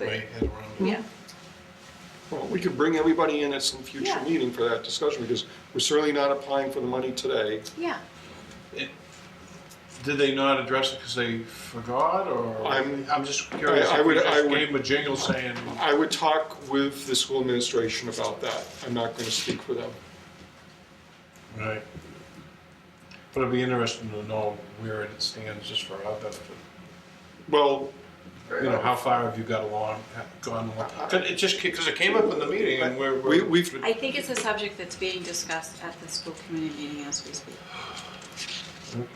right, head around. Yeah, Well, we could bring everybody in at some future Yeah. meeting for that discussion, because we're certainly not applying for the money today. yeah. It- Did they not address it because they forgot, or? I'm- I'm just curious, I- I if we would- I just would- gave them a jingle saying, I would talk with the school administration about that. I'm not gonna speak for them. right? But it'd be interesting to know where it stands just for our benefit. Well, You know, how far have you got along, gone along? 'Cause it just, because it came up in the meeting and we're. we, we're- we've, I think it's a subject that's being discussed at the school committee meeting as we speak. Okay.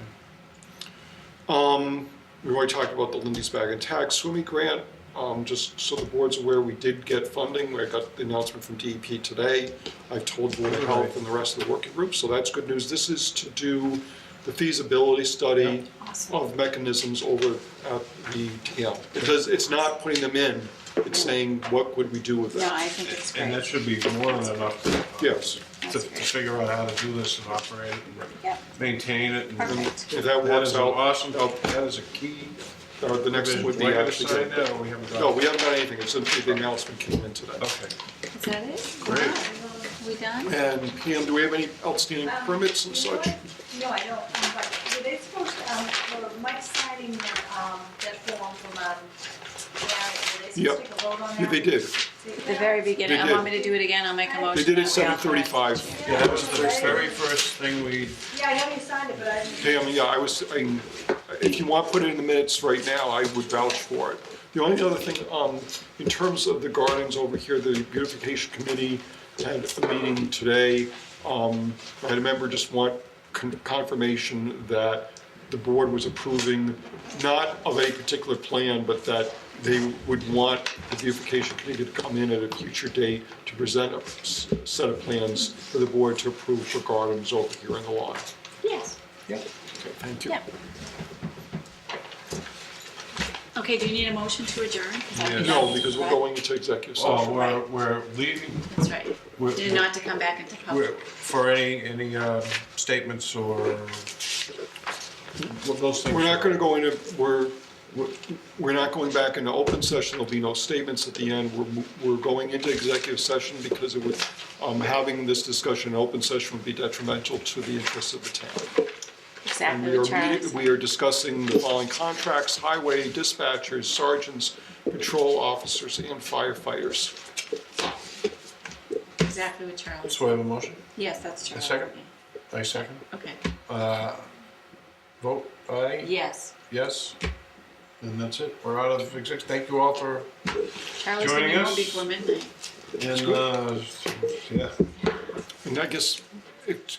Um, we've already talked about the Lindy's Bag and Tag swimming grant. Um, just so the board's aware, we did get funding. I got the announcement from DEP today. I've told Board of Health and the rest of the working group, so that's good news. This is to do the feasibility study Awesome. of mechanisms over at the TM. It does, it's not putting them in, it's saying, what would we do with No, I that? think it's And that great. should be more than enough to, Yes, to to figure out how to do this and operate it and Yep, maintain it. and- perfect. if that That is works an out, awesome, that is a key. uh, the next one would be Right on the actually. side now, we haven't got- No, we haven't done anything, it's simply the announcement came in today. Okay. Is that it? Great. We done? And Pam, do we have any outstanding Um, permits and you know such? what? No, I don't, um, but were they supposed, to, um, for Mike signing, um, that form from, um, Yep. yeah, were they supposed to take a vote on that? Yeah, they did. At the very beginning, I did. want me to do it again, I'll make a motion. They did that it we seven authorize- thirty-five. Yeah, that was the very first thing we, Yeah, I haven't signed it, but I, Pam, yeah, I was, I, if you want, to put it in the minutes right now, I would vouch for it. The only other thing, um, in terms of the gardens over here, the beautification committee had a meeting today. Um, I had a member just want con- confirmation that the board was approving, not of a particular plan, but that they would want the beautification committee to come in at a future date to present a s- set of plans for the board to approve for gardens over here in the lawn. Yes, Okay, Thank you. yeah. Okay, do you need a motion to adjourn? Is that what Yes. you No, got? because we're going into executive oh, session. we're, we're leaving That's right. We're- Did not to come back into we're- public. for any, any um, statements or what those things. We're not are. gonna go into, we're, we're- we're not going back into open session, there'll be no statements at the end. We're, mo- we're going into executive session because it would, um, having this discussion in open session would be detrimental to the interests of the town. And Exactly, we are, what Charlie meeting- said. we are discussing the following contracts, highway dispatchers, sergeants, patrol officers, and firefighters. exactly what Charlie. So I have a motion, Yes, that's Charlie. second? I second. Okay, Uh, Vote aye, yes. yes, and that's it. We're out of exec, thank you all for, Charlie's Joining coming home us? before midnight. and, uh, yeah. And I guess, it-